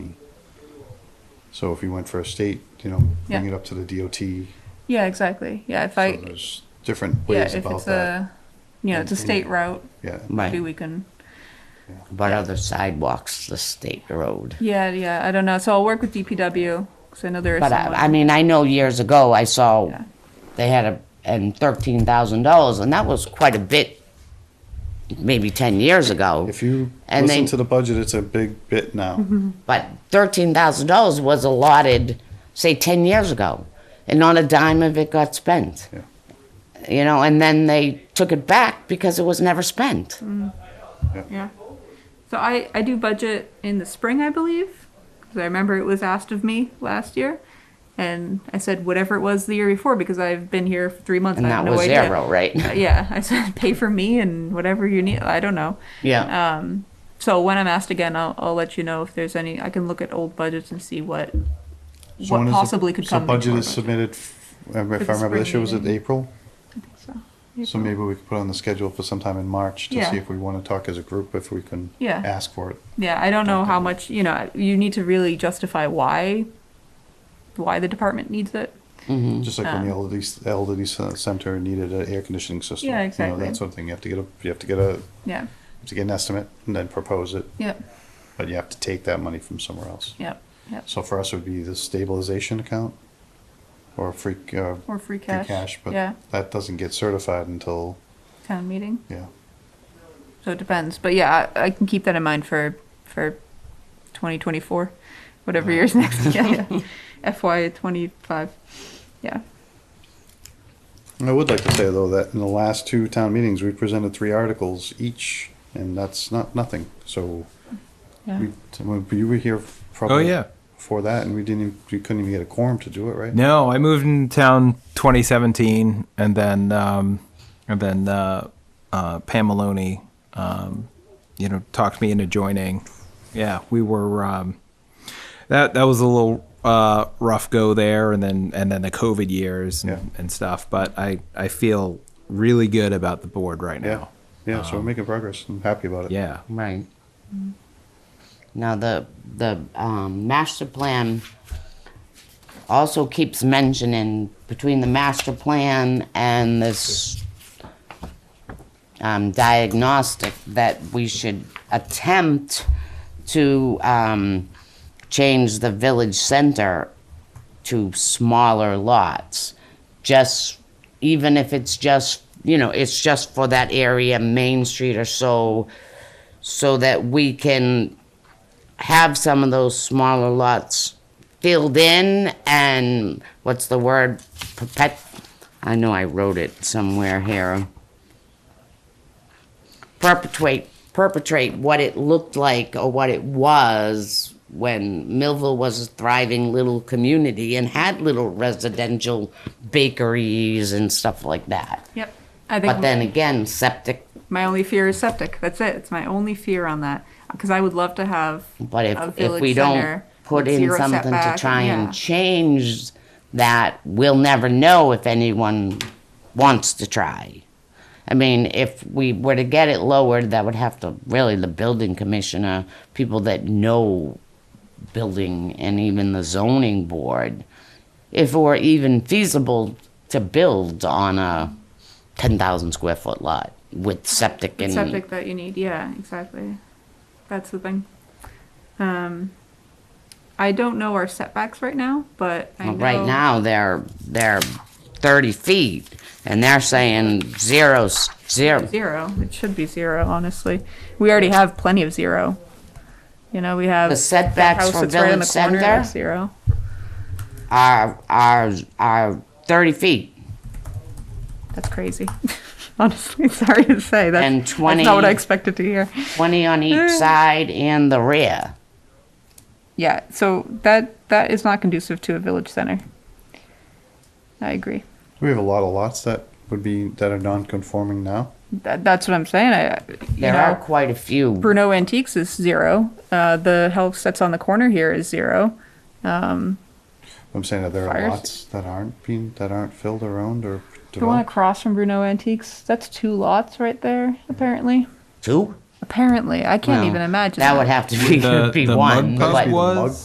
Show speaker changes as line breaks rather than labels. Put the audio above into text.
So if you went for a state, you know, bring
Yeah.
it up to the DOT. So
Yeah, exactly. Yeah, if I,
There's different
yeah,
ways
if
about
it's
that.
a, you know, it's a
And-
state route,
Yeah,
maybe
Right.
we can,
But other sidewalks, the state road.
yeah, yeah, I don't know. So I'll work with DPW, because I know there is
But uh, I, I
someone.
mean, I know years ago I saw
Yeah.
they had a and thirteen thousand dollars, and that was quite a bit. Maybe ten years ago.
if you
And
listen
they-
to the budget, it's a big bit now.
Mm-hmm.
But thirteen thousand dollars was allotted, say, ten years ago, and not a dime of it got spent.
Yeah.
You know, and then they took it back because it was never spent.
Yeah. So I, I do budget in the spring, I believe, because I remember it was asked of me last year. And I said whatever it was the year before, because I've been here for three months.
And
I have
that
no
was
idea.
zero, right?
Uh, Yeah, I said pay for me and whatever you need. I don't know.
Yeah.
Um, so when I'm asked again, I'll, I'll let you know if there's any, I can look at old budgets and see what,
So when
what
is the-
possibly could
so
come.
budget
before
is submitted, f- um, if
the
I remember, this
spring
year was it
meeting.
April? So
So, April.
maybe we could put on the schedule for sometime in March to
Yeah.
see if we want to talk as a group, if we can
Yeah.
ask for it.
Yeah, I don't know how much, you know, you need to really justify why, why the department needs it.
Mm-hmm.
Just like when the elderly, elderly c- center needed an air conditioning system.
Yeah,
you know,
exactly.
That sort of thing. You have to get a, you have to get a,
Yeah,
to get an estimate and then propose it,
yep,
but you have to take that money from somewhere else.
yep, yep.
So for us, it would be the stabilization account or free, c- uh,
Or free
free
cash.
cash,
Yeah,
but that doesn't get certified until,
town meeting.
yeah.
So it depends, but yeah, I, I can keep that in mind for, for twenty twenty-four, whatever year's next, yeah, yeah. FY twenty-five, yeah.
I would like to say though that in the last two town meetings, we presented three articles each, and that's not nothing. So
Yeah.
we, when you were here probably
Oh, yeah.
before that, and we didn't, even- we couldn't even get a quorum to do it, right?
No, I moved in town 2017, and then um, and then uh, uh, Pam Maloney, um, you know, talked me into joining. Yeah, we were um, that that was a little uh, rough go there, and then and then the COVID years and,
Yeah.
and stuff. But I I feel really good about the board right
Yeah,
now.
yeah. So we're making progress. I'm happy about it.
Um, Yeah,
Right. Now, the, the um, master plan also keeps mentioning between the master plan and this um, diagnostic that we should attempt to um, change the village center to smaller lots. Just even if it's just, you know, it's just for that area, Main Street or so, so that we can have some of those smaller lots filled in and what's the word? Perpet. I know I wrote it somewhere here. Perpetuate, perpetrate what it looked like or what it was when Millville was a thriving little community and had little residential bakeries and stuff like that.
Yep. I think.
But then again, septic
My only fear is septic. That's it. It's my only fear on that because I would love to have.
But
a
if, if
village
we don't
center
put
with
in
zero
something to
setback,
try
yeah.
and change that, we'll never know if anyone wants to try. I mean, if we were to get it lowered, that would have to, really, the building commissioner, people that know building and even the zoning board, if it were even feasible to build on a ten thousand square foot lot with septic and.
septic that you need. Yeah, exactly. That's the thing. Um, I don't know our setbacks right now, but I
Well,
know,
Right now, they're, they're thirty feet, and they're saying zero, s- zero.
zero. It should be zero, honestly. We already have plenty of zero. You know, we have
The
that
setbacks
house
for
that's right on the
village
corner, that's
center?
Zero.
Are, are, are thirty feet,
That's crazy. honestly, sorry to say that.
And
That's not what I
20
expected to hear.
twenty on each
Mm.
side and the rear.
Yeah, so that that is not conducive to a village center. I agree.
We have a lot of lots that would be that are non-conforming now.
That, that's what I'm saying. I, you
There are
know,
quite a few.
Bruno Antiques is zero. Uh, the house that's on the corner here is zero.
I'm saying that there are
Fires.
lots that aren't being that aren't filled or owned or
The one
developed.
across from Bruno Antiques, that's two lots right there. Apparently,
Two?
apparently, I can't
Well,
even imagine.
That would have to be,
the,
be
the
one,
mud
but.
pump
Must be the mud
was